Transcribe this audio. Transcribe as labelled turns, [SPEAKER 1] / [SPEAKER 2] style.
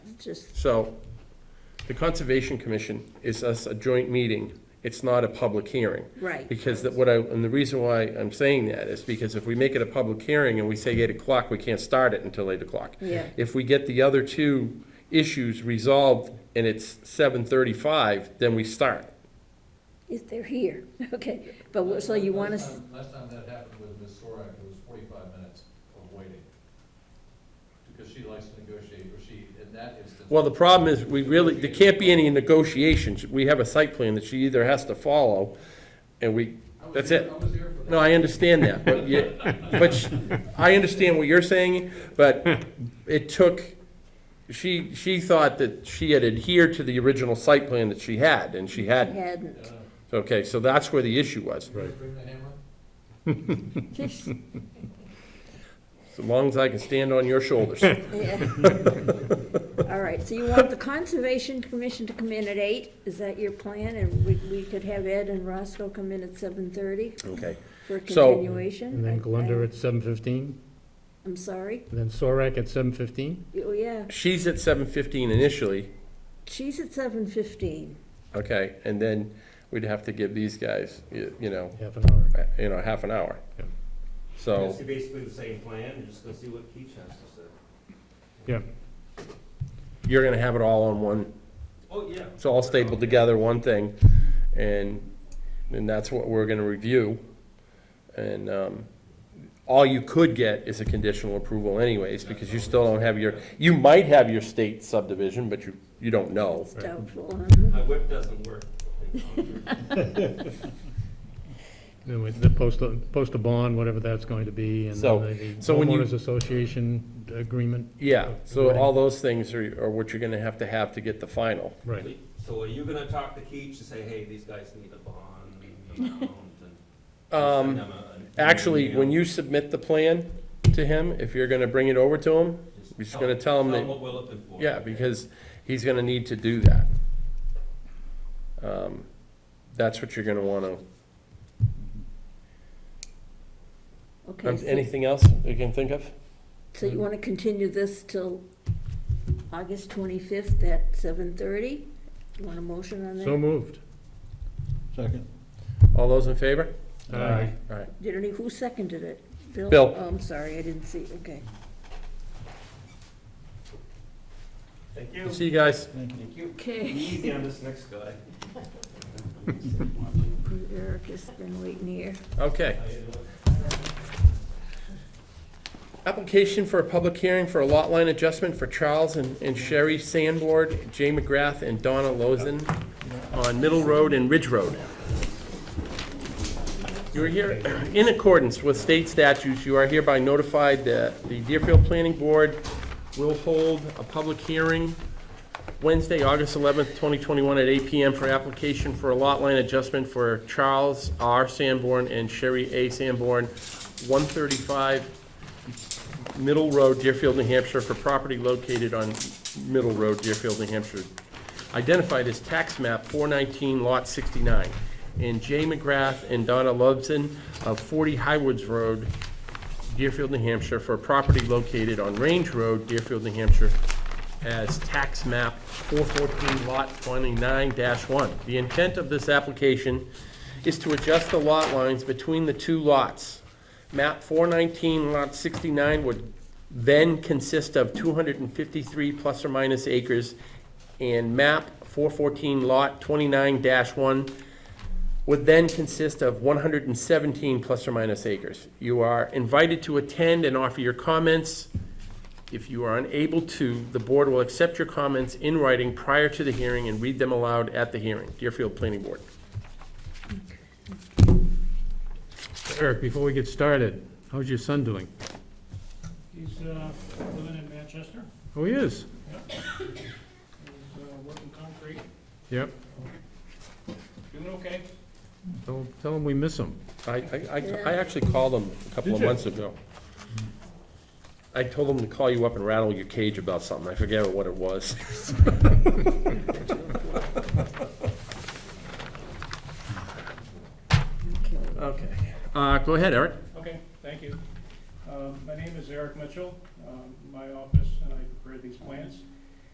[SPEAKER 1] just,
[SPEAKER 2] So, the Conservation Commission is us a joint meeting, it's not a public hearing.
[SPEAKER 1] Right.
[SPEAKER 2] Because that, what I, and the reason why I'm saying that is because if we make it a public hearing and we say eight o'clock, we can't start it until eight o'clock.
[SPEAKER 1] Yeah.
[SPEAKER 2] If we get the other two issues resolved and it's seven thirty-five, then we start.
[SPEAKER 1] if they're here, okay, but, what- so you want
[SPEAKER 3] Last
[SPEAKER 1] us,
[SPEAKER 3] time- Last time that happened with Ms. Sorak, it was forty-five minutes of waiting. Because she likes to negotiate, or she, in that instance.
[SPEAKER 2] Well, the problem is, we really, there can't be any negotiations, we have a site plan that she either has to follow, and we,
[SPEAKER 3] I was
[SPEAKER 2] that's
[SPEAKER 3] here-
[SPEAKER 2] it.
[SPEAKER 3] I was here for
[SPEAKER 2] No,
[SPEAKER 3] that.
[SPEAKER 2] I understand that, but you, but sh- I understand what you're saying, but it took, she, she thought that she had adhered to the original site plan that she had, and she hadn't.
[SPEAKER 1] hadn't,
[SPEAKER 3] Yeah.
[SPEAKER 2] Okay, so that's where the issue was.
[SPEAKER 3] You gonna Bring the hammer?
[SPEAKER 1] just,
[SPEAKER 2] As long as I can stand on your shoulders.
[SPEAKER 1] yeah. All right, so you want the Conservation Commission to come in at eight, is that your plan? And we, we could have Ed and Roscoe come in at seven thirty
[SPEAKER 2] Okay.
[SPEAKER 1] for
[SPEAKER 2] So-
[SPEAKER 1] continuation?
[SPEAKER 4] And
[SPEAKER 1] I-
[SPEAKER 4] then Glunder
[SPEAKER 1] I-
[SPEAKER 4] at seven fifteen,
[SPEAKER 1] I'm sorry,
[SPEAKER 4] and then Sorek at seven fifteen?
[SPEAKER 1] oh, yeah,
[SPEAKER 2] She's at seven fifteen initially,
[SPEAKER 1] she's at seven fifteen,
[SPEAKER 2] okay, and then we'd have to give these guys, you you know,
[SPEAKER 4] Half an hour.
[SPEAKER 2] uh, you know, half an hour.
[SPEAKER 4] Yeah.
[SPEAKER 2] So,
[SPEAKER 5] It's basically the same plan, you're just gonna see what Keach has to say.
[SPEAKER 4] Yeah.
[SPEAKER 2] you're gonna have it all on one,
[SPEAKER 5] Oh, yeah.
[SPEAKER 2] it's all stapled together, one thing, and, and that's what we're gonna review. And, um, all you could get is a conditional approval anyways, because you still don't have your, you might have your state subdivision, but you, you don't know.
[SPEAKER 1] it's doubtful, huh?
[SPEAKER 5] My whip doesn't work.
[SPEAKER 4] Then with the postal, postal bond, whatever that's going to be, and
[SPEAKER 2] So-
[SPEAKER 4] then the
[SPEAKER 2] so when you-
[SPEAKER 4] homeowners association agreement.
[SPEAKER 2] Yeah, so all those things are, are what you're gonna have to have to get the final.
[SPEAKER 4] Right,
[SPEAKER 5] So are you gonna talk to Keach and say, hey, these guys need a bond amount and?
[SPEAKER 2] Um, Actually, when you submit the plan to him, if you're gonna bring it over to him, you're just gonna tell him that-
[SPEAKER 5] what we're looking for.
[SPEAKER 2] yeah, because he's gonna need to do that. Um, That's what you're gonna wanna,
[SPEAKER 1] Okay,
[SPEAKER 2] um,
[SPEAKER 1] so-
[SPEAKER 2] anything else you can think of?
[SPEAKER 1] so you wanna continue this till August twenty-fifth at seven thirty? You Want a motion on that?
[SPEAKER 4] so moved.
[SPEAKER 6] Second.
[SPEAKER 2] All those in favor?
[SPEAKER 7] Uh,
[SPEAKER 4] Aye.
[SPEAKER 2] All right,
[SPEAKER 1] Did any, who seconded it? Bill?
[SPEAKER 2] Bill.
[SPEAKER 1] Oh, I'm sorry, I didn't see, okay.
[SPEAKER 5] Thank you.
[SPEAKER 2] see you guys.
[SPEAKER 5] Thank you. Be
[SPEAKER 1] Okay.
[SPEAKER 5] Easy on this next guy.
[SPEAKER 1] Eric has been waiting here.
[SPEAKER 2] Okay. Application for a public hearing for a lot line adjustment for Charles and and Sherry Sandborn, Jay McGrath, and Donna Lozen on Middle Road and Ridge Road. You are here, in accordance with state statutes, you are hereby notified that the Deerfield Planning Board will hold a public hearing Wednesday, August 11th, 2021, at 8 PM for application for a lot line adjustment for Charles R. Sanborn and Sherry A. Sanborn, 135 Middle Road, Deerfield, New Hampshire, for property located on Middle Road, Deerfield, New Hampshire, identified as tax map 419, lot 69, and Jay McGrath and Donna Lubson of 40 Highwoods Road, Deerfield, New Hampshire, for a property located on Range Road, Deerfield, New Hampshire, as tax map 414, lot 29-1. The intent of this application is to adjust the lot lines between the two lots. Map 419, lot 69 would then consist of 253 plus or minus acres, and map 414, lot 29-1 would then consist of 117 plus or minus acres. You are invited to attend and offer your comments. If you are unable to, the board will accept your comments in writing prior to the hearing and read them aloud at the hearing. Deerfield Planning Board.
[SPEAKER 4] Eric, before we get started, how's your son doing?
[SPEAKER 7] He's uh, living in Manchester.
[SPEAKER 4] Oh, he is?
[SPEAKER 7] He's uh, working concrete.
[SPEAKER 4] Yep.
[SPEAKER 7] Doing okay.
[SPEAKER 4] Tell, tell him we miss him.
[SPEAKER 2] I, I- I, I actually called them a couple
[SPEAKER 4] Did
[SPEAKER 2] of
[SPEAKER 4] you?
[SPEAKER 2] months ago. I told them to call you up and rattle your cage about something. I forget what it was.
[SPEAKER 1] Okay.
[SPEAKER 2] Okay. Uh, go ahead, Eric.
[SPEAKER 7] Okay, thank you. Um, My name is Eric Mitchell. Um, My office, and I prepared these plans,